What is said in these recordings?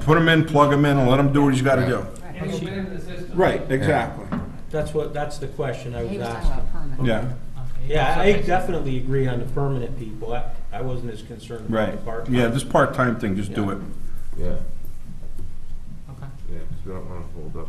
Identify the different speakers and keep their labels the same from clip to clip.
Speaker 1: Put him in, plug him in, and let him do what he's gotta do.
Speaker 2: And you'll win the system.
Speaker 1: Right, exactly.
Speaker 3: That's what, that's the question I
Speaker 4: He
Speaker 3: was
Speaker 4: was talking
Speaker 3: asking.
Speaker 4: about permanent.
Speaker 1: Yeah,
Speaker 3: Yeah, I definitely agree on the permanent people. I, I wasn't as concerned about
Speaker 1: right.
Speaker 3: the part.
Speaker 1: Yeah, this part-time thing, just do
Speaker 3: Yeah.
Speaker 1: it.
Speaker 5: Yeah,
Speaker 2: Okay.
Speaker 5: yeah, because we don't want to hold up.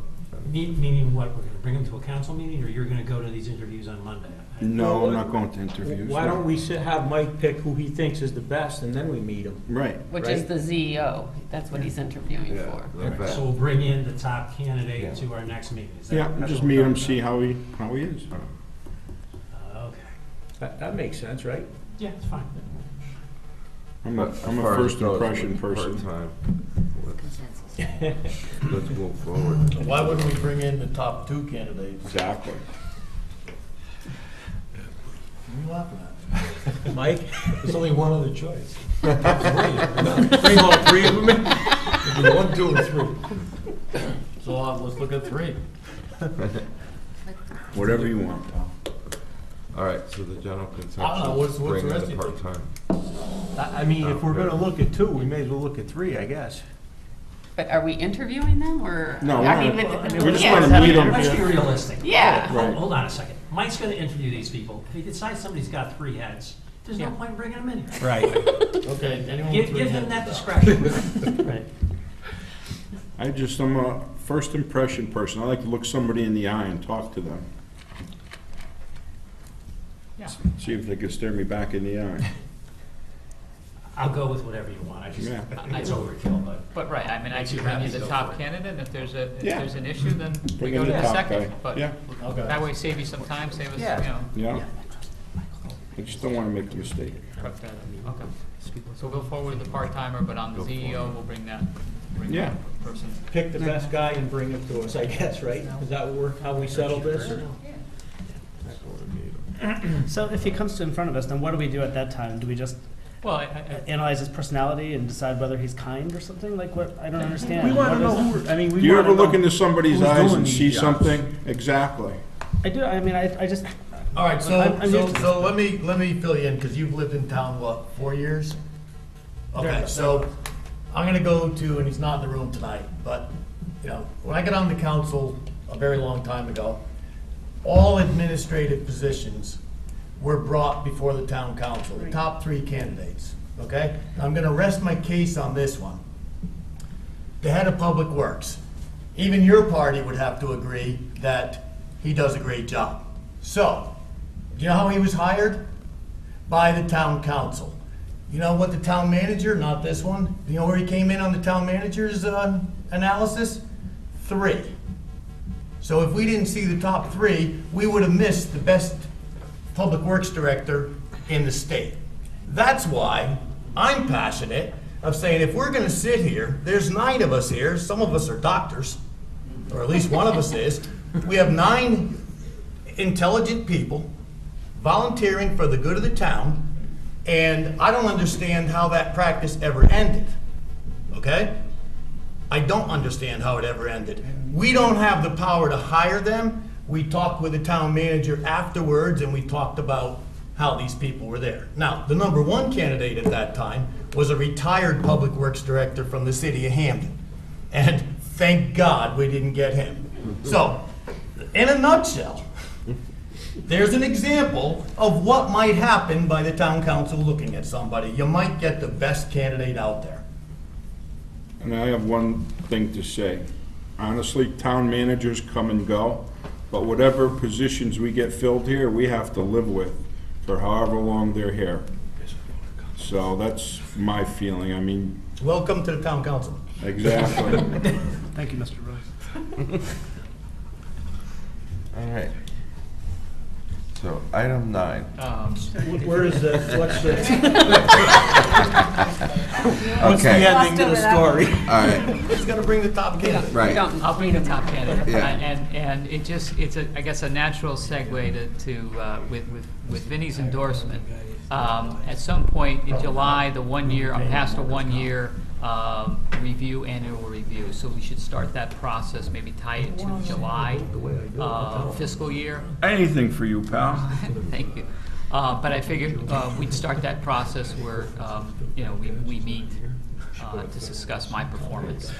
Speaker 6: Me- Meaning what, we're gonna bring them to a council meeting, or you're gonna go to these interviews on Monday?
Speaker 1: No, I'm not going to interviews.
Speaker 3: Why don't we sit, have Mike pick who he thinks is the best and then we meet him?
Speaker 1: Right.
Speaker 7: Which is
Speaker 3: Right.
Speaker 7: the CEO, that's what he's interviewing
Speaker 5: Yeah,
Speaker 7: for.
Speaker 5: like
Speaker 6: So
Speaker 5: that.
Speaker 6: we'll bring in the top candidate to our next meeting, is that?
Speaker 1: Yeah, just meet him, see how he, how he is.
Speaker 6: Oh, Okay,
Speaker 3: That, that makes sense, right?
Speaker 6: yeah, it's fine.
Speaker 1: I'm a,
Speaker 5: But as
Speaker 1: I'm a
Speaker 5: far as
Speaker 1: first
Speaker 5: it goes
Speaker 1: impression
Speaker 5: with
Speaker 1: person.
Speaker 5: part-time, let's-
Speaker 4: Consensus.
Speaker 5: Let's move forward.
Speaker 8: Why wouldn't we bring in the top two candidates?
Speaker 1: Exactly.
Speaker 8: What are you laughing at?
Speaker 3: Mike?
Speaker 8: There's only one other choice.
Speaker 3: Bring all three of them in?
Speaker 8: It'd be one, two, and three. So uh, let's look at three.
Speaker 1: Whatever you want.
Speaker 5: All right, so the general
Speaker 8: I don't know, what's-
Speaker 5: consensus,
Speaker 8: what's
Speaker 5: bring
Speaker 8: the
Speaker 5: in
Speaker 8: rest
Speaker 5: the
Speaker 8: of you think?
Speaker 5: part-time.
Speaker 8: I mean,
Speaker 5: if we're gonna
Speaker 8: look at two, we may as well look at three, I guess.
Speaker 7: But are we interviewing them or?
Speaker 1: No,
Speaker 7: I
Speaker 1: we're
Speaker 7: mean,
Speaker 1: not.
Speaker 7: with- I mean,
Speaker 1: We
Speaker 7: we
Speaker 1: just
Speaker 7: can't
Speaker 1: wanna
Speaker 7: have
Speaker 1: meet
Speaker 7: an
Speaker 1: 'em.
Speaker 6: Let's
Speaker 7: interview.
Speaker 6: be realistic.
Speaker 7: Yeah.
Speaker 6: Hold-
Speaker 1: Right.
Speaker 6: Hold on a second, Mike's gonna interview these people, if he decides somebody's got three heads, there's no
Speaker 3: Yeah.
Speaker 6: point bringing them in. here.
Speaker 3: Right.
Speaker 8: Okay, anyone with
Speaker 6: Give,
Speaker 8: three
Speaker 6: give him
Speaker 8: heads?
Speaker 6: that discretion. Right.
Speaker 1: I just, I'm a first impression person. I like to look somebody in the eye and talk to them.
Speaker 6: Yeah.
Speaker 1: See if they can stare me back in the eye.
Speaker 6: I'll go with whatever you want, I just,
Speaker 1: Yeah.
Speaker 6: it's overkill, but.
Speaker 2: But right, I mean, I
Speaker 6: Makes you
Speaker 2: could bring
Speaker 6: happy
Speaker 2: you
Speaker 6: to
Speaker 2: the
Speaker 6: go for
Speaker 2: top
Speaker 6: it.
Speaker 2: candidate, and if there's a, if
Speaker 1: Yeah.
Speaker 2: there's an issue, then we
Speaker 1: Bring
Speaker 2: go
Speaker 1: in
Speaker 2: to
Speaker 1: the
Speaker 2: the
Speaker 1: top
Speaker 2: second.
Speaker 1: guy.
Speaker 2: But
Speaker 1: Yeah,
Speaker 2: that way save you some time, save us, you know.
Speaker 1: yeah. I just don't want to make a mistake.
Speaker 2: cut that. Okay. So we'll go forward with the part-timer, but on the
Speaker 5: Go
Speaker 2: CEO,
Speaker 5: forward.
Speaker 2: we'll bring that, bring
Speaker 1: Yeah.
Speaker 2: that person.
Speaker 3: Pick the best guy and bring him to us, I guess, right? Is that where, how we settle this? or-
Speaker 9: So if he comes to in front of us, then what do we do at that time? Do we just
Speaker 2: Well, I, I,
Speaker 9: analyze his personality and decide whether he's kind or something? Like what? I don't understand.
Speaker 3: We wanna
Speaker 9: What
Speaker 3: know
Speaker 9: is it?
Speaker 3: who, we're- I mean, we
Speaker 1: Do you
Speaker 3: wanna
Speaker 1: ever look
Speaker 3: know-
Speaker 1: into somebody's
Speaker 3: who's
Speaker 1: eyes
Speaker 3: doing
Speaker 1: and
Speaker 3: these
Speaker 1: see
Speaker 3: jobs.
Speaker 1: something? Exactly.
Speaker 9: I do. I mean, I, I just
Speaker 8: All right, so,
Speaker 9: I'm- I'm
Speaker 8: so,
Speaker 9: used to
Speaker 8: so let me, let me fill you in, because you've lived in town, what, four years? Okay, so I'm gonna go to, and he's not in the room tonight, but, you know, when I got on the council a very long time ago, all administrative positions were brought before the town council, the top three candidates, okay? I'm gonna rest my case on this one. The head of public works, even your party would have to agree that he does a great job. So, do you know how he was hired? By the town council. You know what the town manager, not this one, you know where he came in on the town manager's uh, analysis? Three. So if we didn't see the top three, we would have missed the best public works director in the state. That's why I'm passionate of saying if we're gonna sit here, there's nine of us here, some of us are doctors, or at least one of us is. We have nine intelligent people volunteering for the good of the town, and I don't understand how that practice ever ended. Okay? I don't understand how it ever ended. We don't have the power to hire them. We talked with the town manager afterwards, and we talked about how these people were there. Now, the number one candidate at that time was a retired public works director from the city of Hamden. And thank God we didn't get him. So, in a nutshell, there's an example of what might happen by the town council looking at somebody. You might get the best candidate out there.
Speaker 1: And I have one thing to say. Honestly, town managers come and go, but whatever positions we get filled here, we have to live with for however long they're here. So that's my feeling. I mean,
Speaker 8: Welcome to the town council.
Speaker 1: exactly.
Speaker 9: thank you, Mr. Rose.
Speaker 5: All right. So item nine.
Speaker 2: um,
Speaker 3: Where is the, what's the, what's the
Speaker 5: Okay, all
Speaker 3: ending to the story?
Speaker 5: right,
Speaker 8: He's gonna bring the top candidate.
Speaker 7: we
Speaker 5: right.
Speaker 7: don't
Speaker 2: I'll bring the top candidate.
Speaker 5: Yeah.
Speaker 2: Uh, And, and it just, it's a, I guess, a natural segue to, to, uh, with, with with Vinnie's endorsement. Um, at some point in July, the one year, I'm past a one-year, um, review, annual review. So we should start that process, maybe tie it to July, uh, fiscal year.
Speaker 1: Anything for you, pal.
Speaker 2: Thank you. Uh, But I figured uh, we'd start that process where, um, you know, we, we meet uh, to discuss my performance